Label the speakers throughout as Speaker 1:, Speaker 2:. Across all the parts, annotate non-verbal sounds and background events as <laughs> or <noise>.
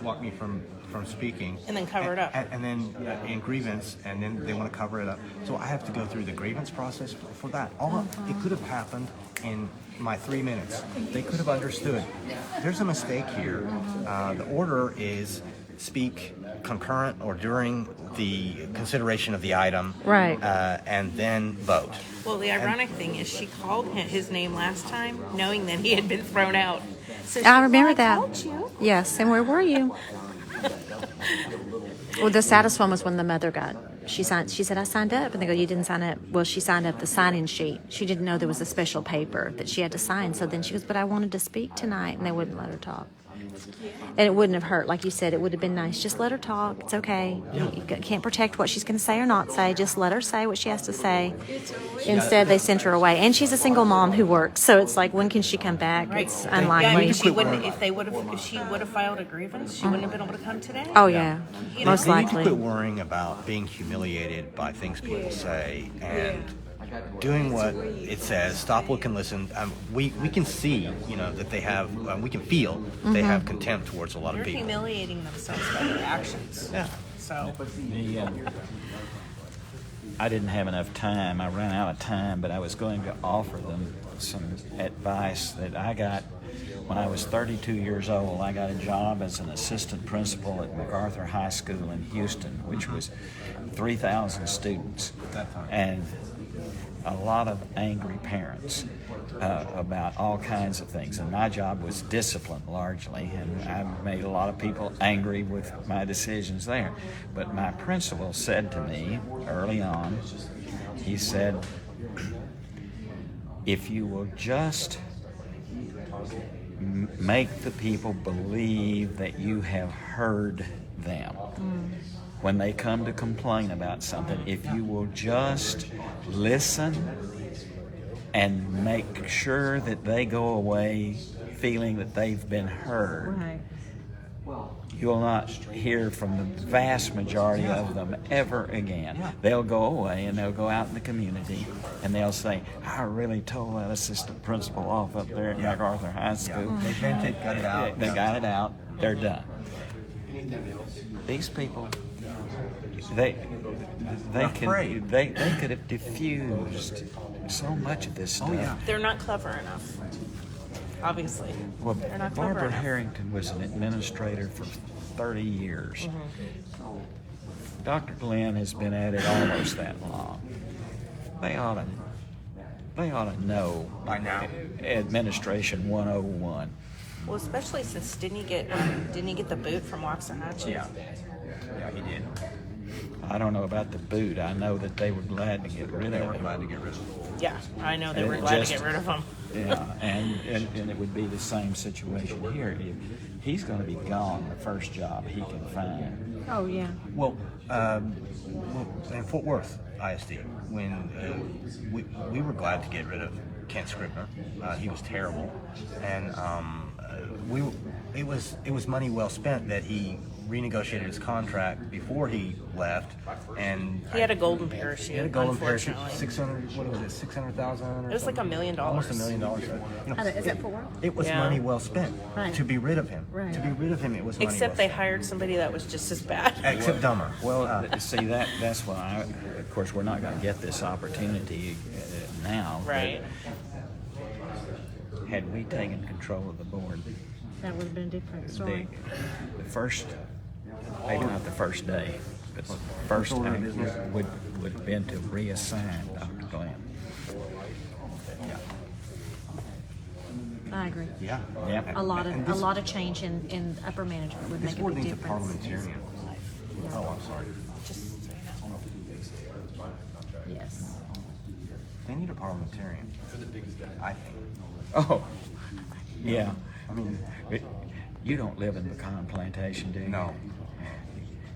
Speaker 1: block me from from speaking.
Speaker 2: And then cover it up.
Speaker 1: And, and then uh, in grievance, and then they want to cover it up. So I have to go through the grievance process for, for that. All it could have happened in my three minutes. They could have understood. There's a mistake here. Uh, the order is speak concurrent or during the consideration of the item.
Speaker 3: Right.
Speaker 1: Uh, and then vote.
Speaker 2: Well, the ironic thing is she called him, his name last time, knowing that he had been thrown out. So she
Speaker 3: I
Speaker 2: was
Speaker 3: remember
Speaker 2: like,
Speaker 3: that.
Speaker 2: "Called you."
Speaker 3: Yes, and where were you? well, the saddest one was when the mother got. She signed. She said, "I signed up," and they go, "You didn't sign up." Well, she signed up the sign-in sheet. She didn't know there was a special paper that she had to sign. So then she goes, "But I wanted to speak tonight," and they wouldn't let her talk. And it wouldn't have hurt, like you said. It would have been nice. Just let her talk. It's okay. You- You can't protect what she's going to say or not say. Just let her say what she has to say. Instead, they sent her away. And she's a single mom who works, so it's like, when can she come back? It's unlikely.
Speaker 2: Yeah, I mean, she wouldn't. If they would have, if she would have filed a grievance, she wouldn't have been able to come today.
Speaker 3: Oh yeah,
Speaker 2: You know,
Speaker 3: most
Speaker 1: They need to quit
Speaker 3: likely.
Speaker 1: worrying about being humiliated by things people say and doing what it says. Stop, look, and listen. Um, we we can see, you know, that they have. Um, we can feel they
Speaker 3: Mm-hmm.
Speaker 1: have contempt towards a lot
Speaker 2: They're
Speaker 1: of people.
Speaker 2: humiliating themselves by their actions.
Speaker 1: Yeah.
Speaker 2: So
Speaker 4: The, uh, I didn't have enough time. I ran out of time, but I was going to offer them some advice that I got when I was 32 years old. I got a job as an assistant principal at MacArthur High School in Houston, which was 3,000 students.
Speaker 1: That time.
Speaker 4: And a lot of angry parents uh, about all kinds of things. And my job was discipline largely, and I made a lot of people angry with my decisions there. But my principal said to me early on, he said, if you will just m- make the people believe that you have heard them when they come to complain about something, if you will just listen and make sure that they go away feeling that they've been heard, you'll not hear from the vast majority of them ever again. They'll go away and they'll go out in the community and they'll say, I really told that assistant principal off up there at MacArthur High School.
Speaker 1: They bent it, got it out.
Speaker 4: They got it out. They're done. These people, they they can
Speaker 1: afraid.
Speaker 4: they, they could have diffused so much of this
Speaker 1: Oh,
Speaker 4: stuff.
Speaker 2: they're not clever enough. Obviously.
Speaker 4: Well,
Speaker 2: They're not clever
Speaker 4: Barbara
Speaker 2: enough.
Speaker 4: Harrington was an administrator for 30 years. Dr. Glenn has been at it almost that long. They ought to, they ought to know
Speaker 1: By now.
Speaker 4: administration 101.
Speaker 2: Well, especially since didn't he get um, didn't he get the boot from Waxahachie?
Speaker 1: Yeah. Yeah, he did.
Speaker 4: I don't know about the boot. I know that they were glad to get rid
Speaker 1: They were
Speaker 4: of it.
Speaker 1: glad to get rid of him.
Speaker 2: Yeah, I know they
Speaker 4: And
Speaker 2: were
Speaker 4: it
Speaker 2: glad
Speaker 4: just-
Speaker 2: to get rid of him.
Speaker 4: Yeah, and, and, and it would be the same situation here. If he's going to be gone the first job he can find.
Speaker 3: Oh yeah.
Speaker 1: Well, um, well, in Fort Worth ISD, when uh, we, we were glad to get rid of Kent Scribner, uh, he was terrible, and um, uh, we it was it was money well spent that he renegotiated his contract before he left, and
Speaker 2: He had a golden
Speaker 1: he
Speaker 2: parachute.
Speaker 1: had a golden
Speaker 2: unfortunately.
Speaker 1: parachute, six hundred what was it, six hundred thousand?
Speaker 2: It was like a million
Speaker 1: Almost a
Speaker 2: dollars.
Speaker 1: million dollars. You know,
Speaker 3: Is that for work?
Speaker 1: it was
Speaker 2: Yeah.
Speaker 1: money well spent
Speaker 3: Right.
Speaker 1: to be rid of him.
Speaker 3: Right.
Speaker 1: To be rid of him, it was money
Speaker 2: Except
Speaker 1: well
Speaker 2: they hired somebody that was just
Speaker 1: <laughs>
Speaker 2: as bad.
Speaker 1: spent. except uh, dumber.
Speaker 4: Well, th- see that that's why. I, of course, we're not going to get this opportunity uh, now. but
Speaker 2: Right.
Speaker 4: Had we taken control of the board,
Speaker 3: That would have been a different
Speaker 4: the, the first, maybe not the first day, but the first
Speaker 1: order of
Speaker 4: thing
Speaker 1: business.
Speaker 4: would would have been to reassign Dr. Glenn.
Speaker 3: I agree.
Speaker 1: Yeah.
Speaker 4: Yeah.
Speaker 3: A lot
Speaker 1: And
Speaker 3: of a
Speaker 1: this-
Speaker 3: lot of change in, in upper management would
Speaker 1: This
Speaker 3: make a
Speaker 1: board
Speaker 3: big
Speaker 1: needs a
Speaker 3: difference.
Speaker 1: parliamentarian. Oh, I'm sorry.
Speaker 3: Yes.
Speaker 1: They need a parliamentarian. I think.
Speaker 4: Oh, yeah.
Speaker 1: I mean,
Speaker 4: It- You don't live in pecan plantation, do you?
Speaker 1: no.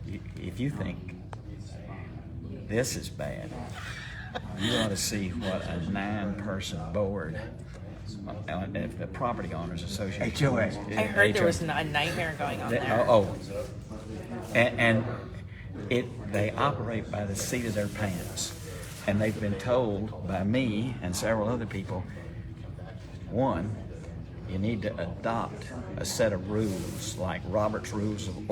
Speaker 4: Y- If you think this is bad, you ought to see what a nine-person board, uh, if the property owners association.
Speaker 1: HOA.
Speaker 2: I heard there
Speaker 4: HOA.
Speaker 2: was n- a nightmare going on
Speaker 4: They-
Speaker 2: there.
Speaker 4: oh, oh. And, and it they operate by the seat of their pants, and they've been told by me and several other people. One, You need to adopt a set of rules like Robert's Rules of